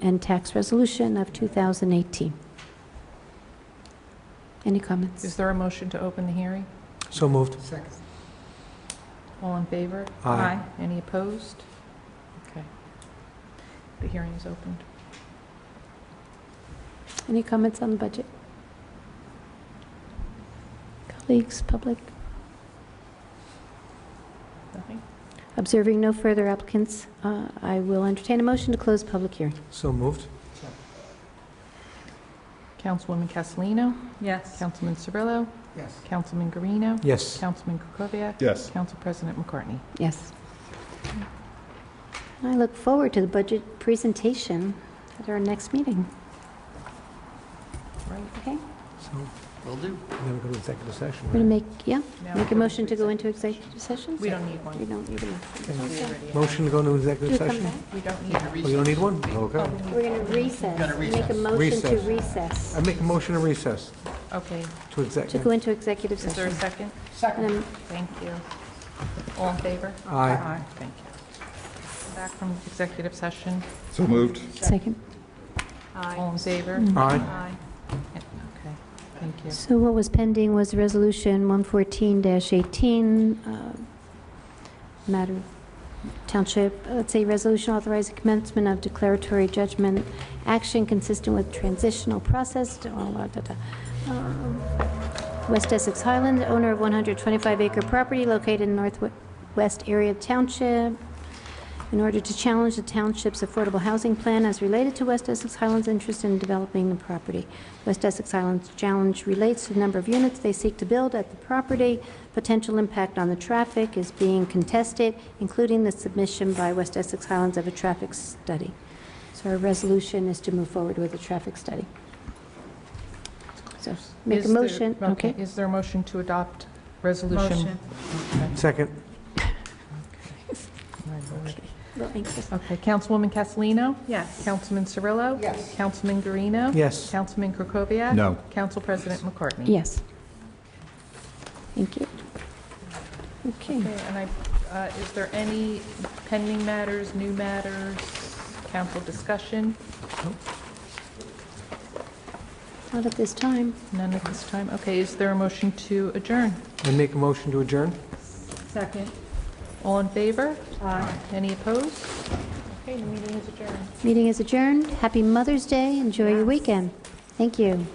and Tax Resolution of 2018. Any Is comments? there a motion to open the hearing? So moved. Second. All in favor? Aye. Any opposed? Okay. The hearing is opened. Any comments on the budget? Colleagues, public? Nothing? Observing no further applicants, uh, I will entertain a motion to close public hearing. So moved. Councilwoman Castellino? Yes. Councilman Cirillo? Yes. Councilman Guarino? Yes. Councilman Kukoviac? Yes. Council President McCartney? Yes. I look forward to the budget presentation at our next meeting, Right. okay? So Will do. we're going to go to executive session, We're right? going to make, yeah, Now make a we're motion to go into executive executive session? We don't need You one. don't need a motion. Okay. We already have- Motion to go into executive Do come session? back. We don't need one. Oh, you don't need one? Oh, Okay. we need- We're going to recess, Gotta make a recess. motion to Recess. recess, I make a motion to recess Okay. to to go executive. into executive Is there a session. second? Second. Um, Thank you. All in favor? Aye. Thank you. Back from executive session. So moved. Second. All in favor? Aye. Yeah, Okay, thank you. So what was pending was Resolution 114-18, uh, matter, township, uh, let's say, resolution authorizing commencement of declaratory judgment action consistent with transitional process, da- da- da- da- da. Um, West Essex Highland, owner of 125-acre property located in northwest area of township, in order to challenge the township's affordable housing plan as related to West Essex Highlands' interest in developing the property. West Essex Highlands' challenge relates to the number of units they seek to build at the property. Potential impact on the traffic is being contested, including the submission by West Essex Highlands of a traffic study. So our resolution is to move forward with a traffic study. So make Is a there- motion, okay? Is there a motion to adopt resolution? Second. My lord. Well, anxious. Okay, Councilwoman Castellino? Yes. Councilman Cirillo? Yes. Councilman Guarino? Yes. Councilman Krokoviac? No. Council President McCartney? Yes. Thank you. Okay. Okay, and I, uh, is there any pending matters, new matters, council discussion? Not at this time. None at this time? Okay, is there a motion to adjourn? I make a motion to adjourn? Second. All in favor? Aye. Any opposed? Okay, the meeting is adjourned. Meeting is adjourned. Happy Mother's Day. Enjoy your weekend. Thank you.